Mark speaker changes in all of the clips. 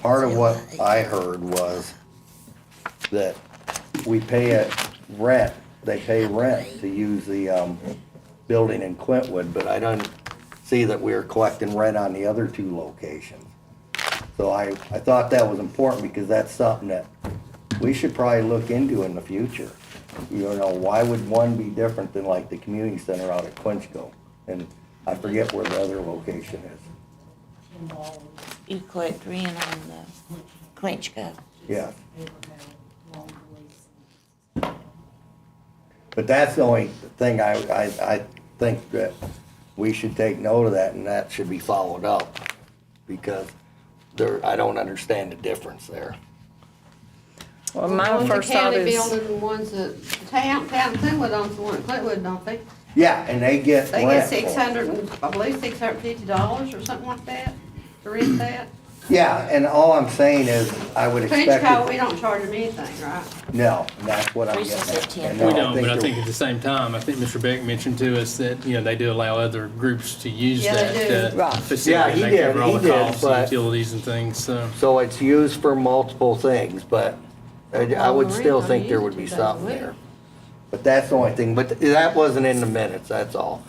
Speaker 1: part of what I heard was that we pay a rent, they pay rent to use the, um, building in Quintwood, but I don't see that we are collecting rent on the other two locations. So I, I thought that was important because that's something that we should probably look into in the future. You know, why would one be different than like the community center out at Quinchgo? And I forget where the other location is.
Speaker 2: You collect rent on the Quinchco.
Speaker 1: Yeah. But that's the only thing I, I, I think that we should take note of that and that should be followed up. Because there, I don't understand the difference there.
Speaker 3: Well,
Speaker 4: Well,
Speaker 3: my
Speaker 4: the
Speaker 3: first thought
Speaker 4: county
Speaker 3: is,
Speaker 4: building, the ones that, the town, town Clintwood owns the one at Clintwood, don't they?
Speaker 1: Yeah, and they get
Speaker 4: They get
Speaker 1: rent. for it.
Speaker 4: six hundred, and I believe six hundred and fifty dollars or something like that to rent that.
Speaker 1: Yeah, and all I'm saying is, I would expect,
Speaker 4: Frenchco, we
Speaker 1: it-
Speaker 4: don't charge them anything, right?
Speaker 1: no, and that's what I'm
Speaker 2: Reese is
Speaker 1: getting at.
Speaker 2: at 10.
Speaker 1: And
Speaker 5: We don't, but I
Speaker 1: they're-
Speaker 5: think at the same time, I think Mr. Beck mentioned to us that, you know, they do allow other groups to use
Speaker 4: Yeah, they
Speaker 5: that
Speaker 4: do.
Speaker 5: uh,
Speaker 2: Right.
Speaker 1: Yeah,
Speaker 5: facility.
Speaker 1: he
Speaker 5: and They cover
Speaker 1: did,
Speaker 5: all
Speaker 1: he
Speaker 5: the
Speaker 1: did,
Speaker 5: costs
Speaker 1: but-
Speaker 5: and utilities and things, so.
Speaker 1: So it's used for multiple things, but I I would still
Speaker 4: Well,
Speaker 1: think there would be
Speaker 4: Marine Corps
Speaker 1: something
Speaker 4: used it,
Speaker 1: there. But that's the only thing, but that wasn't in the minutes, that's all.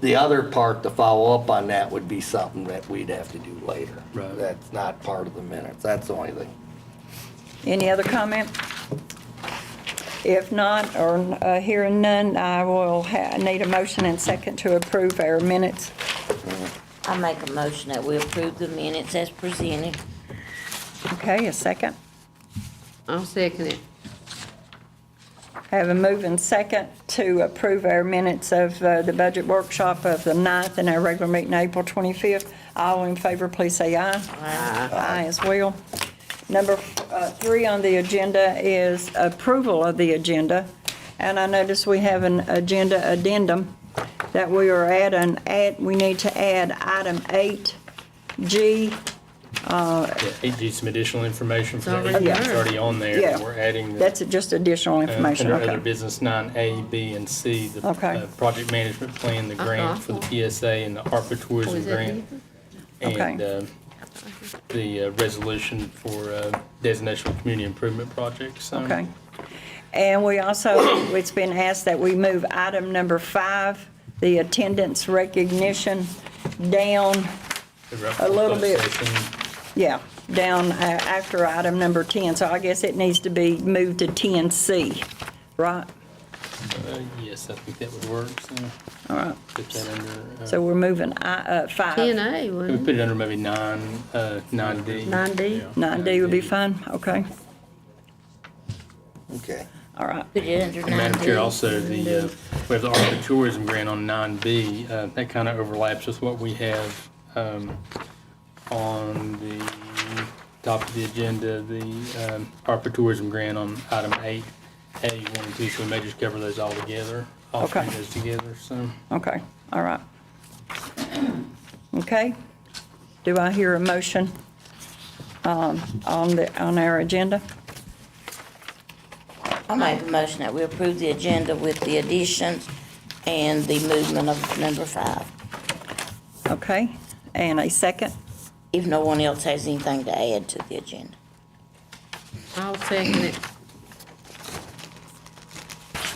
Speaker 1: The other part to follow up on that would be something that we'd have to do later.
Speaker 5: Right.
Speaker 1: That's not part of the minutes, that's the only thing.
Speaker 3: any other comment? If not, or uh, hearing none, I will ha- need a motion and second to approve our minutes.
Speaker 2: I make a motion that we approve the minutes as presented.
Speaker 3: Okay, a second.
Speaker 4: I'll second it.
Speaker 3: Have a move and second to approve our minutes of uh, the budget workshop of the 9th and our regular meeting April 25th. All in favor, please say aye. Aye. Aye as well. Number uh, three on the agenda is approval of the agenda. And I notice we have an agenda addendum that we are adding, add, we need to add item 8G.
Speaker 5: yeah, It gives some additional information for
Speaker 4: It's
Speaker 5: the
Speaker 4: already
Speaker 5: agent that's
Speaker 4: there.
Speaker 5: already on there.
Speaker 3: Yeah.
Speaker 5: and We're adding. the,
Speaker 3: That's just additional
Speaker 5: uh,
Speaker 3: information,
Speaker 5: Under other
Speaker 3: okay.
Speaker 5: business, nine A, B, and C, the
Speaker 3: Okay.
Speaker 5: uh, project management plan, the
Speaker 4: Uh-huh.
Speaker 5: grant for the PSA and the ARPA tourism
Speaker 4: Was that
Speaker 5: grant. And
Speaker 3: Okay.
Speaker 5: uh, the uh, resolution for uh, designation of community improvement projects. so-
Speaker 3: Okay. And we also, it's been asked that we move item number five, the attendance recognition, down,
Speaker 5: The reference
Speaker 3: A little
Speaker 5: closed
Speaker 3: bit.
Speaker 5: session.
Speaker 3: yeah, down uh, after item number 10. So I guess it needs to be moved to 10C, right?
Speaker 5: Uh, Yes, I think that would work, so.
Speaker 3: All right.
Speaker 5: Put that under, uh,
Speaker 3: So we're moving I- uh,
Speaker 4: Ten
Speaker 3: five.
Speaker 4: A,
Speaker 5: we
Speaker 4: wouldn't
Speaker 5: put it under maybe nine, uh, nine D.
Speaker 4: Nine D.
Speaker 3: 9D would be fine, okay,
Speaker 1: Okay.
Speaker 3: all right.
Speaker 2: Put it under
Speaker 5: And Madam Chair,
Speaker 2: 9D.
Speaker 5: also, the, uh, we have the ARPA tourism grant on nine B, uh, that kind of overlaps with what we have, um, on the top of the agenda, the, um, ARPA tourism grant on item eight, A one and two, so we may just cover those all together, all three of
Speaker 3: Okay.
Speaker 5: those together, so.
Speaker 3: Okay, all right. Okay, do I hear a motion um, on the, on our agenda?
Speaker 2: I make a motion that we approve the agenda with the additions and the movement of number five.
Speaker 3: Okay, and a second?
Speaker 2: If no one else has anything to add to the agenda.
Speaker 4: I'll second it.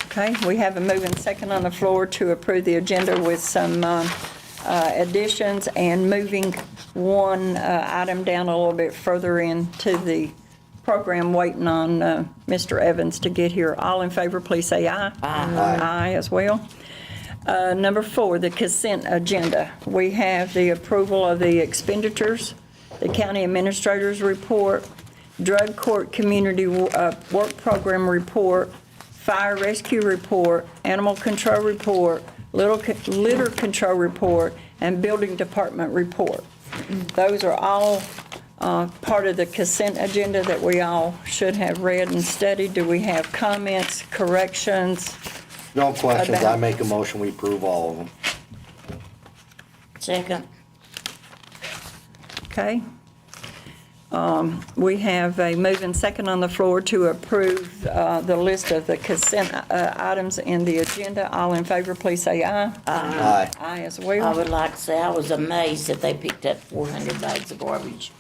Speaker 3: Okay, we have a moving second on the floor to approve the agenda with some um, uh, additions and moving one uh, item down a little bit further into the program, waiting on uh, Mr. Evans to get here. All in favor, please say aye. Aye. Aye as well. Uh, Number four, the consent agenda. We have the approval of the expenditures, the county administrator's report, drug court community uh, work program report, fire rescue report, animal control report, little co- litter control report, and building department report. Those are all uh, part of the consent agenda that we all should have read and studied. Do we have comments, corrections?
Speaker 1: No questions, I
Speaker 3: About-
Speaker 1: make a motion, we approve all of them.
Speaker 2: Second,
Speaker 3: Okay. Um, We have a move and second on the floor to approve uh, the list of the consent uh, items in the agenda. All in favor, please say aye.
Speaker 1: Aye.
Speaker 3: Aye as
Speaker 2: I
Speaker 3: well.
Speaker 2: would like to say I was amazed that they picked up four hundred bags of garbage